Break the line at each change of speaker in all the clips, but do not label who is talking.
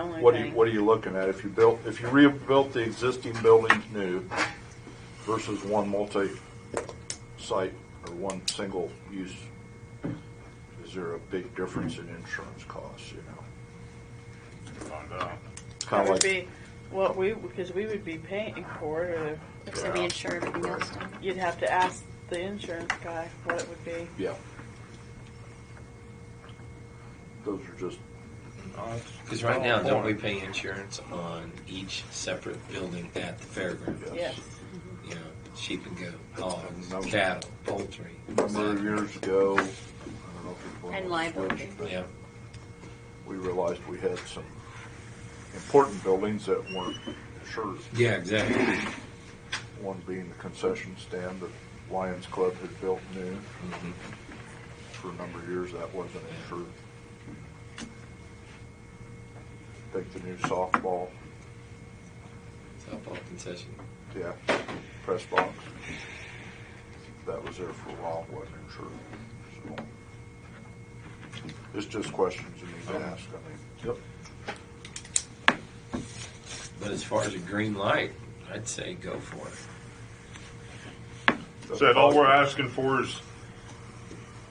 only
What are you,
thing.
what are you looking at? If you built, if you rebuilt the existing buildings new versus one multi-site or one single use, is there a big difference in insurance costs, you know?
Find out.
That
Kind of
would
like,
be what we, because we would be paying for it, or
It's gonna be insured, everything else done.
you'd have to ask the insurance guy what it would be.
yeah. Those are just,
Because
Oh,
right now, don't we pay insurance on each separate building at the fairgrounds?
Yes.
You know, sheep and goat, hogs,
No.
cattle, poultry.
a number of years ago, I don't know if it was one of
And
those
liability.
switches, but
Yeah,
We realized we had some important buildings that weren't insured.
yeah, exactly.
One being the concession stand that Lions Club had built new.
Mm-hmm.
For a number of years, that wasn't insured. Think the new softball,
Softball concession.
yeah, press box. That was there for a while, wasn't insured. So It's just questions you need to ask, I mean. Yep.
But as far as a green light, I'd say go for it.
So that all we're asking for is,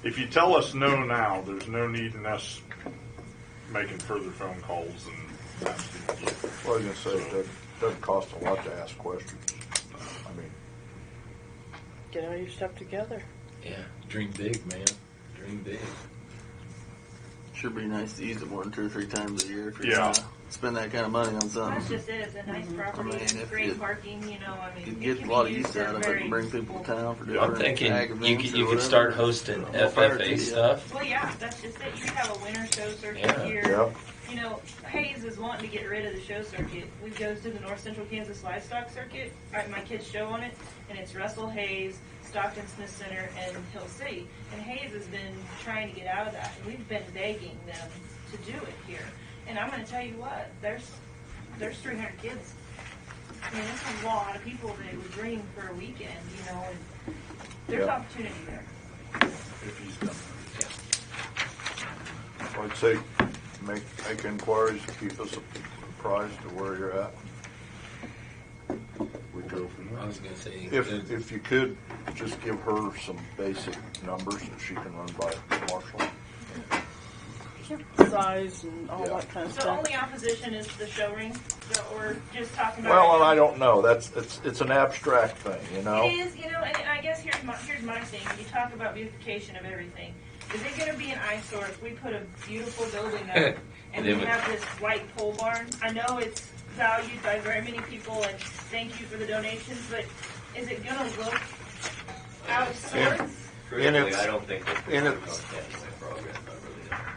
if you tell us no now, there's no need in us making further phone calls and asking you.
Well, I was gonna say, it doesn't, doesn't cost a lot to ask questions. I mean,
Get all your stuff together.
Yeah, dream big, man. Dream big.
Should be nice to use it more than two or three times a year if you're
Yeah.
gonna spend that kind of money on
That's
something.
just it, it's a nice property,
I mean,
it's
if
great
you-
parking, you know, I mean.
You
it
get
can
a
be
lot of
used
use out
in
of it
very-
and bring people to town for
I'm
different
thinking
ag
you
events
could,
or
you could start
whatever.
hosting
Well, prior to
FFA
you.
stuff.
Well, yeah, that's just it, you could have a winter show circuit
Yeah.
here,
yeah,
you know, Hayes is wanting to get rid of the show circuit, we goes to the North Central Kansas Livestock Circuit, I, my kids show on it, and it's Russell Hayes, Stockton Smith Center, and Hill City, and Hayes has been trying to get out of that, and we've been begging them to do it here, and I'm gonna tell you what, there's, there's three hundred kids I mean, there's a lot of people that would dream for a weekend, you know, and there's
Yeah.
opportunity there.
If he's done.
I'd say make, make inquiries, keep us apprised of where you're at. We go from
I
there.
was gonna say,
Mm-hmm. If, if you could, just give her some basic numbers that she can run by Marshall.
Size and all
Yeah.
that kind of
So
stuff.
only opposition is the show ring that we're just talking about.
Well,
right
and I
now.
don't know, that's, it's, it's an abstract thing, you know?
It is, you know, and I guess here's my, here's my thing, you talk about beautification of everything. Is it gonna be an eyesore if we put a beautiful building up and
And
we
then we-
have this white pole barn? I know it's valued by very many people and thank you for the donations, but is it gonna look out of sorts?
And it's-
I don't think. that-
and it's-
I really don't.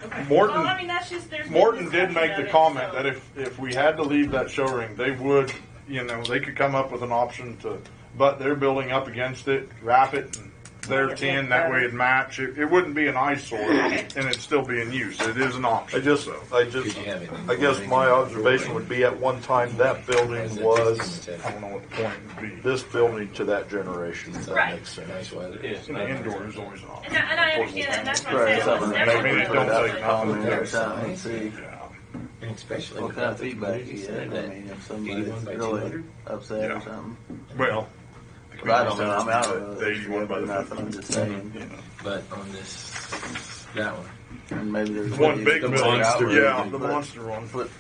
Okay.
Morton-
Well, I mean, that's just, there's. been
Morton did
discussion
make
of
the
it,
comment
so-
that if, if we had to leave that show ring, they would, you know, they could come up with an option to butt their building up against it, wrap it, and their tin, that way it'd match. It, it wouldn't be an eyesore and it'd still be in use. It is an
I
option.
just,
so.
I
could
just,
you have it?
I guess my observation would be at one time, that building was
I don't know what the point would be.
this building to that generation, if that
Right.
makes sense.
Nice weather.
It's
You know, indoor is always an option.
And I, and I understand that, and that's what I'm
Right,
saying.
so-
It's
I mean, it don't
never gonna
take
look
nothing.
Call them every time and see
Yeah.
And especially
what
with
kind
that
of feedback you get. I mean, if somebody's really upset
Yeah.
or something.
Well. the
But I don't know, I'm
community
out
center,
of
they
it.
won by the
nothing, I'm just saying.
You know.
But on this, that one.
And maybe there's
One big
the
building,
monster
yeah,
building,
the
but
monster one.
Put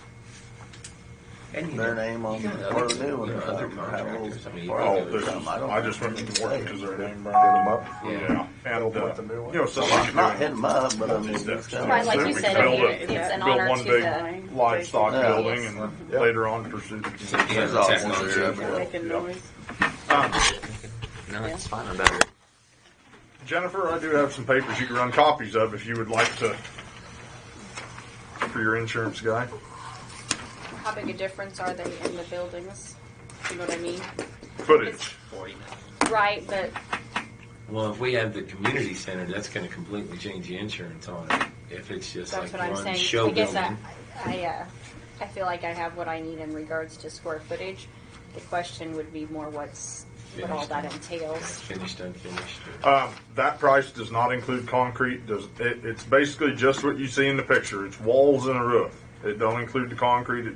And you
their
know,
name on
you
one
got
of the
other-
new ones.
you got other
or something, or have a little
contractors. I mean, you
party
Oh,
probably
or
there's,
something, don't
I just
know.
remembered Morton because their name.
Hit 'em up.
Yeah, and,
They'll
uh,
put the new one.
you know, something.
Not hit 'em up, but I mean,
Just
it's
that-
kind
Right,
of.
like you
we
said,
built
earlier,
a-
it's it's an
built
honor
one
to
big
the,
livestock
Yeah.
building and
Yeah.
later on pursued.
Yeah,
There's all
technology.
sorts of-
Making noise.
No, it's fine, I'm better.
Jennifer, I do have some papers you can run copies of if you would like to, for your insurance guy.
how big a difference are they in the buildings? You know what I mean?
Footage.
Right, but
Well, if we have the community center, that's going to completely change the insurance on it. If it's just
that's
like
what I'm
one
saying.
show
I guess I,
building.
I, uh, I feel like I have what I need in regards to square footage. The question would be more what's, what all that entails.
Finished, unfinished. or-
Um, that price does not include concrete. Does it, it's basically just what you see in the picture. It's walls and a roof. It don't include the concrete, it